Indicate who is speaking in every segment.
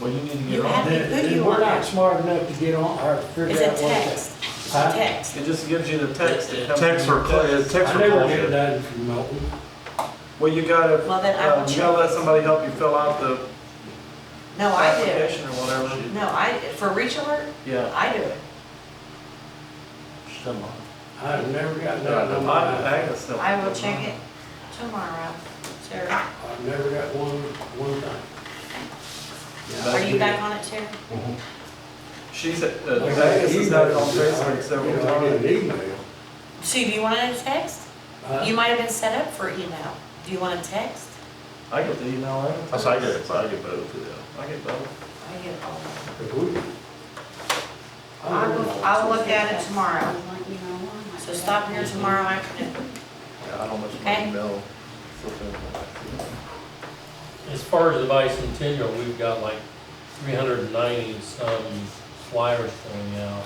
Speaker 1: Well, you need to
Speaker 2: You
Speaker 1: get on
Speaker 2: have-
Speaker 1: it.
Speaker 2: Hey,
Speaker 3: Then-
Speaker 2: who do
Speaker 3: then
Speaker 2: you
Speaker 3: We're
Speaker 2: want?
Speaker 3: not smart enough to get on, or
Speaker 2: It's
Speaker 3: figure
Speaker 2: a
Speaker 3: out what.
Speaker 2: text, it's a
Speaker 3: Huh?
Speaker 2: text.
Speaker 1: It just gives you the text that comes.
Speaker 4: Text
Speaker 1: from
Speaker 4: or,
Speaker 1: the
Speaker 4: cl- yeah, text
Speaker 3: I
Speaker 4: or
Speaker 3: never get it
Speaker 4: bullshit.
Speaker 3: done from Milton.
Speaker 1: Well, you gotta,
Speaker 2: Well, then I will
Speaker 1: um, you gotta let
Speaker 2: check.
Speaker 1: somebody help you fill out the
Speaker 2: No, Oh, I do.
Speaker 1: application or whatever.
Speaker 2: No, I, for reach alert,
Speaker 1: Yeah.
Speaker 2: I do it.
Speaker 3: I've never gotten
Speaker 1: Yeah,
Speaker 3: that
Speaker 1: the
Speaker 3: on
Speaker 1: lot,
Speaker 3: my,
Speaker 1: Agnes still-
Speaker 2: I will check it tomorrow. Sarah,
Speaker 3: I've never got one, one thing. Yeah,
Speaker 2: are you
Speaker 3: I-
Speaker 2: back on it, Sarah?
Speaker 1: She's, uh,
Speaker 3: Like I
Speaker 1: Agnes has had it on Facebook
Speaker 3: you
Speaker 1: several
Speaker 3: know, I get
Speaker 1: times.
Speaker 3: an email.
Speaker 2: Sue, do you want a text?
Speaker 3: Huh?
Speaker 2: You might have been set up for email. Do you want a text?
Speaker 1: I get the email, I get.
Speaker 4: That's, I get it, I get both of them.
Speaker 1: I get both.
Speaker 2: I get all of them.
Speaker 3: If we- I
Speaker 2: I
Speaker 3: don't
Speaker 2: will,
Speaker 3: know.
Speaker 2: I'll look at it tomorrow. So
Speaker 5: So
Speaker 2: stop here tomorrow afternoon.
Speaker 4: Yeah, I don't much
Speaker 2: Okay.
Speaker 4: email.
Speaker 6: As far as the bicentennial, we've got like three hundred and ninety some flyers going out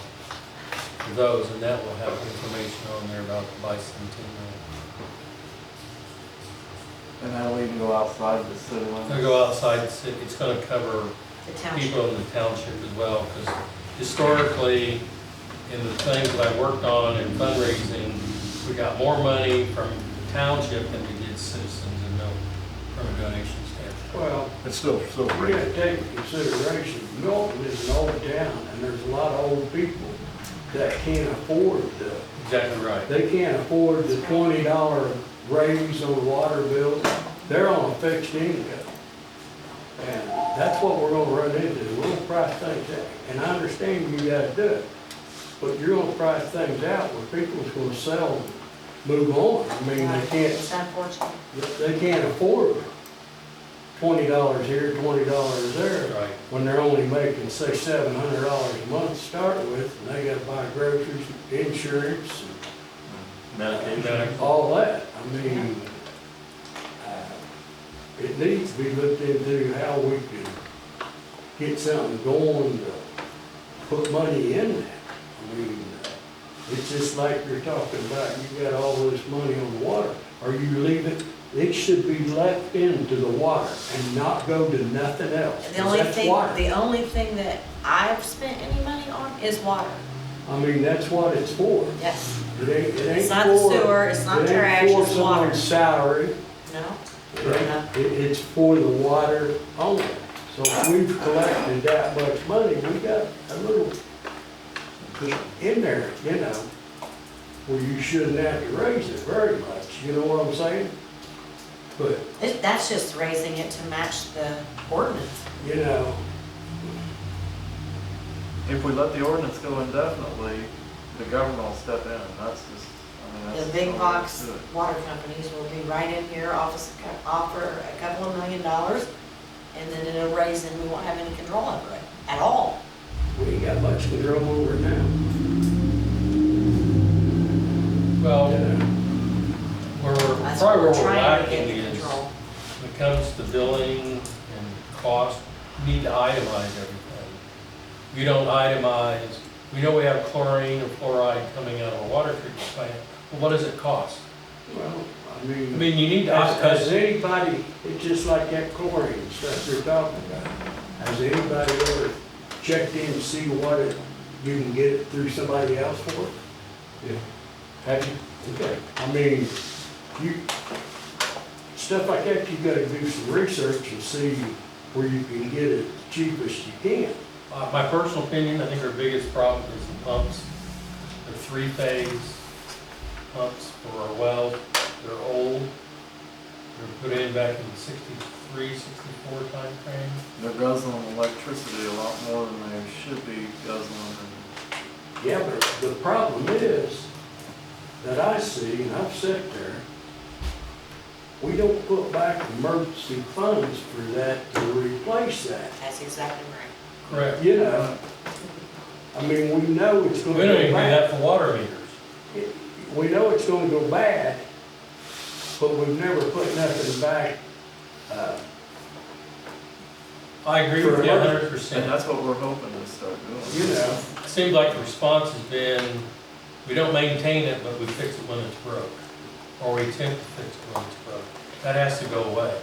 Speaker 6: for those, and that will have information on there about the bicentennial.
Speaker 1: And that'll even go outside the city limits.
Speaker 6: It'll go outside, the city. it's gonna cover
Speaker 2: The township.
Speaker 6: people in the township as well, because historically, in the things that I worked on in fundraising, we got more money from the township than we did citizens and no, from a donation standpoint.
Speaker 3: Well,
Speaker 4: It's still, still
Speaker 3: we gotta
Speaker 4: great.
Speaker 3: take into consideration, Milton is an old town, and there's a lot of old people that can't afford the
Speaker 6: Exactly right.
Speaker 3: They can't afford the twenty dollar raise on water bills, they're on a fixed income. And that's what we're gonna run into, we're gonna price things out, and I understand you gotta do it, but you're gonna price things out where people's gonna sell, and move on, I mean, they can't,
Speaker 2: It's unfortunate.
Speaker 3: they can't afford twenty dollars here, twenty dollars there
Speaker 6: Right.
Speaker 3: when they're only making six, seven hundred dollars a month to start with, and they gotta buy groceries, insurance, and all that. I mean, uh, it needs to be looked into how we can get something going to put money in that. I mean, uh, it's just like you're talking about, you got all this money on the water, or you leave it, it should be left into the water and not go to nothing else. 'cause
Speaker 2: The only
Speaker 3: that's
Speaker 2: thing,
Speaker 3: water.
Speaker 2: the only thing that I've spent any money on is water.
Speaker 3: I mean, that's what it's for.
Speaker 2: Yes.
Speaker 3: It ain't, it ain't
Speaker 2: It's not the
Speaker 3: for-
Speaker 2: sewer, it's not
Speaker 3: it ain't
Speaker 2: trash,
Speaker 3: for
Speaker 2: it's water.
Speaker 3: someone's Salary,
Speaker 2: No?
Speaker 3: it ain't- it- it's for the water only. So if we've collected that much money, we got a little in there, you know, where you shouldn't have to raise it very much, you know what I'm saying? But,
Speaker 2: It- That's just raising it to match the ordinance.
Speaker 3: you know,
Speaker 1: If we let the ordinance go indefinitely, the government will step in, that's just, I mean, that's.
Speaker 2: The
Speaker 1: just
Speaker 2: big
Speaker 1: how
Speaker 2: box
Speaker 1: we do it.
Speaker 2: water companies will be right in here, office, co- offer a couple of million dollars, and then it'll raise and we won't have any control over it at all.
Speaker 3: we ain't got much control over it now.
Speaker 6: Well,
Speaker 3: you know.
Speaker 6: Where, we're-
Speaker 2: That's what
Speaker 6: probably where
Speaker 2: we're
Speaker 6: we're
Speaker 2: trying to
Speaker 6: lacking
Speaker 2: get the
Speaker 6: is,
Speaker 2: control.
Speaker 6: when it comes to billing and cost, we need to itemize everything. We don't itemize, we know we have chlorine or fluoride coming out of a water treatment plant, but what does it cost?
Speaker 3: Well, I
Speaker 6: I
Speaker 3: mean.
Speaker 6: mean, you need to,
Speaker 3: Has, has
Speaker 6: because
Speaker 3: anybody, it's just like that chlorine stuff you're talking about, has anybody ever checked in to see what it, you can get it through somebody else for? Yeah. Have you? Okay, I mean, you, stuff like that, you gotta do some research and see where you can get it cheapest you can.
Speaker 6: uh, my personal opinion, I think our biggest problem is the pumps. The three-phase pumps for our wells, they're old. They were put in back in the 63, 64 timeframe.
Speaker 1: They're guzzling electricity a lot more than they should be guzzling,
Speaker 3: Yeah, but the problem is, that I see, and I've sat there, we don't put back emergency funds for that to replace that.
Speaker 2: That's exactly right.
Speaker 6: Correct.
Speaker 3: You know, I mean, we know it's
Speaker 6: We
Speaker 3: gonna go
Speaker 6: don't even do
Speaker 3: bad.
Speaker 6: that for water meters.
Speaker 3: We know it's gonna go bad, but we've never put nothing back, uh,
Speaker 6: I agree with you
Speaker 3: For-
Speaker 6: a hundred
Speaker 1: and
Speaker 6: percent.
Speaker 1: that's what we're hoping to start
Speaker 3: you
Speaker 1: doing.
Speaker 3: know.
Speaker 6: Seems like the response has been, we don't maintain it, but we fix it when it's broke. Or we attempt to fix it when it's broke. That has to go away.